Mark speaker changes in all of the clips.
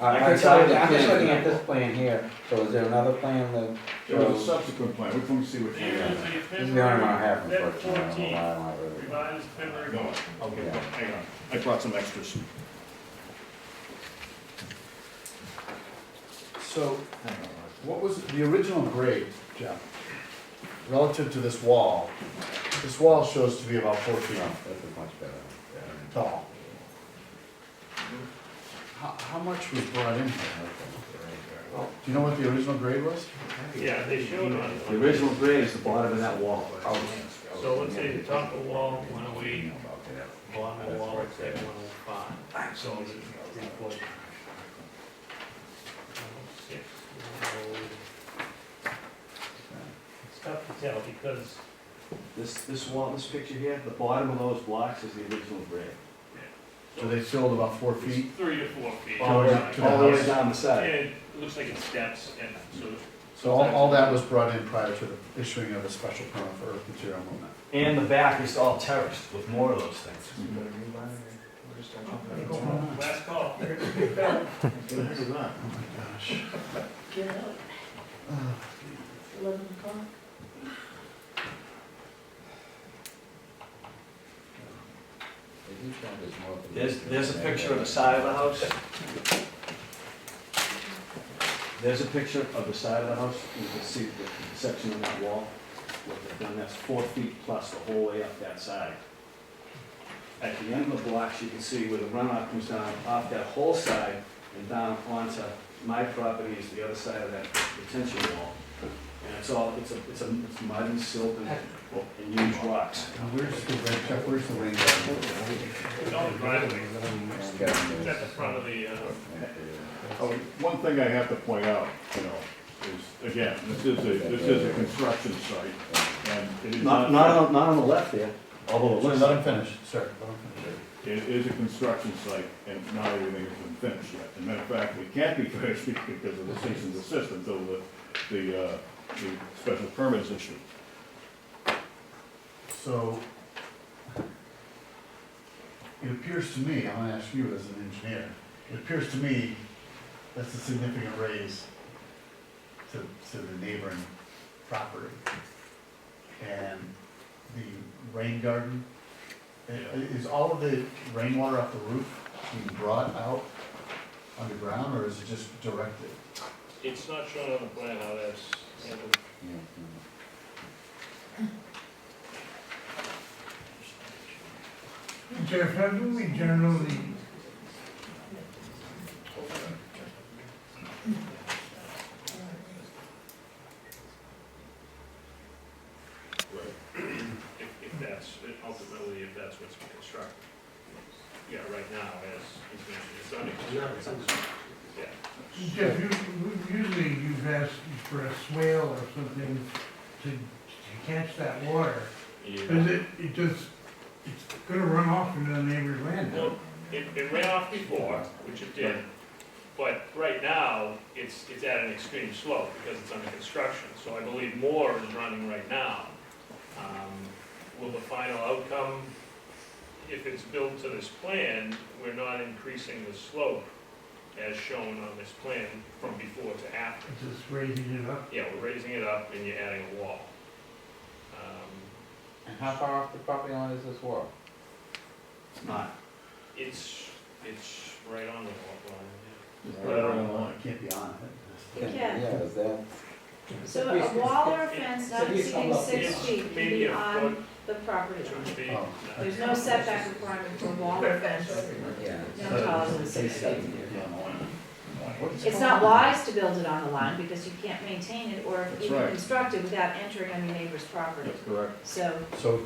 Speaker 1: I-
Speaker 2: I
Speaker 1: I'm
Speaker 2: can tell you
Speaker 1: sorry,
Speaker 2: that
Speaker 1: I'm just
Speaker 2: plan.
Speaker 1: looking at this plan here, so is there another plan that,
Speaker 3: There was a subsequent plan, we can see what you
Speaker 4: Here's
Speaker 3: have.
Speaker 4: the
Speaker 1: this is the only one I have
Speaker 4: February
Speaker 1: unfortunately, I don't know why I
Speaker 4: fourteenth,
Speaker 1: don't have it.
Speaker 4: revised February.
Speaker 3: No, okay, hang on, I brought some extras.
Speaker 5: So
Speaker 3: Hang on.
Speaker 5: what was the original grade, Jeff? Relative to this wall, this wall shows to be about four feet
Speaker 1: No, this is much better.
Speaker 5: tall. How, how much was brought in here? Do you know what the original grade was?
Speaker 4: Yeah, they showed on.
Speaker 2: The original grade is the bottom of that wall.
Speaker 1: Oh,
Speaker 4: So let's say the top of the wall, one oh eight, bottom of the wall, let's say one oh five, so it's three foot. Six, one oh. It's tough to tell because
Speaker 2: This, this wall, this picture here, the bottom of those blocks is the original grade.
Speaker 5: So they filled about four
Speaker 4: it's
Speaker 5: feet?
Speaker 4: three to four feet.
Speaker 5: All the way up to the
Speaker 2: All the way
Speaker 5: house.
Speaker 2: down the
Speaker 4: Yeah,
Speaker 2: side.
Speaker 4: it looks like it steps and so.
Speaker 5: So all, all that was brought in prior to the issuing of a special permit for earth material movement.
Speaker 2: And the back is all terraced with more of those things.
Speaker 4: Last call.
Speaker 3: What the heck is that?
Speaker 6: Get out. It's eleven o'clock.
Speaker 1: They do show there's more than-
Speaker 2: There's, there's a picture of the side of the house. There's a picture of the side of the house, you can see the section of that wall, what they've done, that's four feet plus the whole way up that side. At the end of the blocks, you can see where the runoff comes down off that whole side and down onto my property is the other side of that retention wall. And it's all, it's a, it's a it's mud and silt and, and huge rocks.
Speaker 5: Now where's the red, Jeff, where's the rain garden?
Speaker 4: It's on the driveway.
Speaker 1: And, uh,
Speaker 4: It's at the front of the, uh,
Speaker 3: Oh, One thing I have to point out, you know, is, again, this is a, this is a construction site, and it is
Speaker 2: Not,
Speaker 3: not.
Speaker 2: not on, not on the left there, although it
Speaker 5: Let
Speaker 2: looks
Speaker 5: let
Speaker 2: like.
Speaker 5: him finish, sir. let him finish.
Speaker 3: It is a construction site, and not everything has been finished yet. As a matter of fact, we can't be finished because of the cease and desist until the, the, uh, the special permit is issued.
Speaker 5: So, it appears to me, I'm gonna ask you as an engineer, it appears to me that's a significant raise to, to the neighboring property. And the rain garden, i- i- is all of the rainwater off the roof being brought out underground, or is it just directed?
Speaker 4: it's not shown on the plan how that's handled.
Speaker 1: yeah, yeah.
Speaker 7: Jeff, haven't we generally
Speaker 4: if, if that's, ultimately, if that's what's constructed. Yeah, right now, as, is being- it's under construction. Yeah.
Speaker 7: Jeff, you, you- usually you've asked for a swale or something to, to catch that water. Is it, it just, it's gonna run off into the neighbor's land now?
Speaker 4: Well, it, it ran off before, which it did, but right now, it's, it's at an extreme slope because it's under construction, so I believe more is running right now. Um, Will the final outcome, if it's built to this plan, we're not increasing the slope as shown on this plan from before to after.
Speaker 7: It's just raising it up?
Speaker 4: Yeah, we're raising it up and you're adding a wall. Um,
Speaker 1: And how far off the property line is this wall?
Speaker 2: It's not.
Speaker 4: It's, it's right on the wall line.
Speaker 3: It's right around the line.
Speaker 5: It can't be on it.
Speaker 6: You can.
Speaker 1: Yeah, is that?
Speaker 6: So a wall or a fence
Speaker 1: So
Speaker 6: not
Speaker 1: he's
Speaker 6: exceeding
Speaker 1: almost-
Speaker 6: six
Speaker 4: It's
Speaker 6: feet can
Speaker 4: Maybe
Speaker 6: be
Speaker 4: a foot,
Speaker 6: on the property
Speaker 4: two
Speaker 6: line.
Speaker 4: feet.
Speaker 5: Oh.
Speaker 6: There's no setback requirement for a wall or fence,
Speaker 1: Yeah.
Speaker 6: no taller than six feet.
Speaker 5: What's
Speaker 6: It's
Speaker 5: going
Speaker 6: not
Speaker 5: on?
Speaker 6: wise to build it on the line because you can't maintain it or
Speaker 3: That's
Speaker 6: even
Speaker 3: right.
Speaker 6: construct it without entering on your neighbor's property.
Speaker 3: That's correct.
Speaker 6: So
Speaker 5: So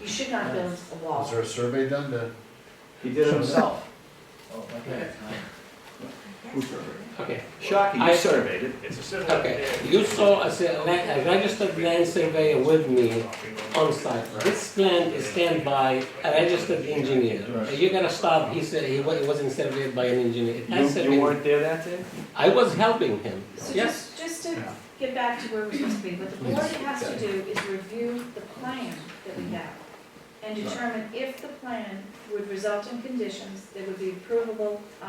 Speaker 6: you should not build a
Speaker 5: Was
Speaker 6: wall.
Speaker 5: there a survey done to?
Speaker 2: He did it himself.
Speaker 3: Who's correct?
Speaker 8: Okay,
Speaker 2: Shocking,
Speaker 8: I-
Speaker 2: you surveyed it.
Speaker 4: It's a similar.
Speaker 8: okay. You saw a se- la- a registered land surveyor with me on site. This plan is scanned by a registered engineer.
Speaker 3: Right.
Speaker 8: You're gonna stop, he said, he wa- it wasn't surveyed by an engineer. It has
Speaker 2: You, you
Speaker 8: surveyed.
Speaker 2: weren't there that day?
Speaker 8: I was helping him,
Speaker 6: So
Speaker 8: yes.
Speaker 6: just, just to
Speaker 5: Yeah.
Speaker 6: get back to where we're supposed to be, what the board has to do is review the plan that we have and determine if the plan would result in conditions that would be approvable uh,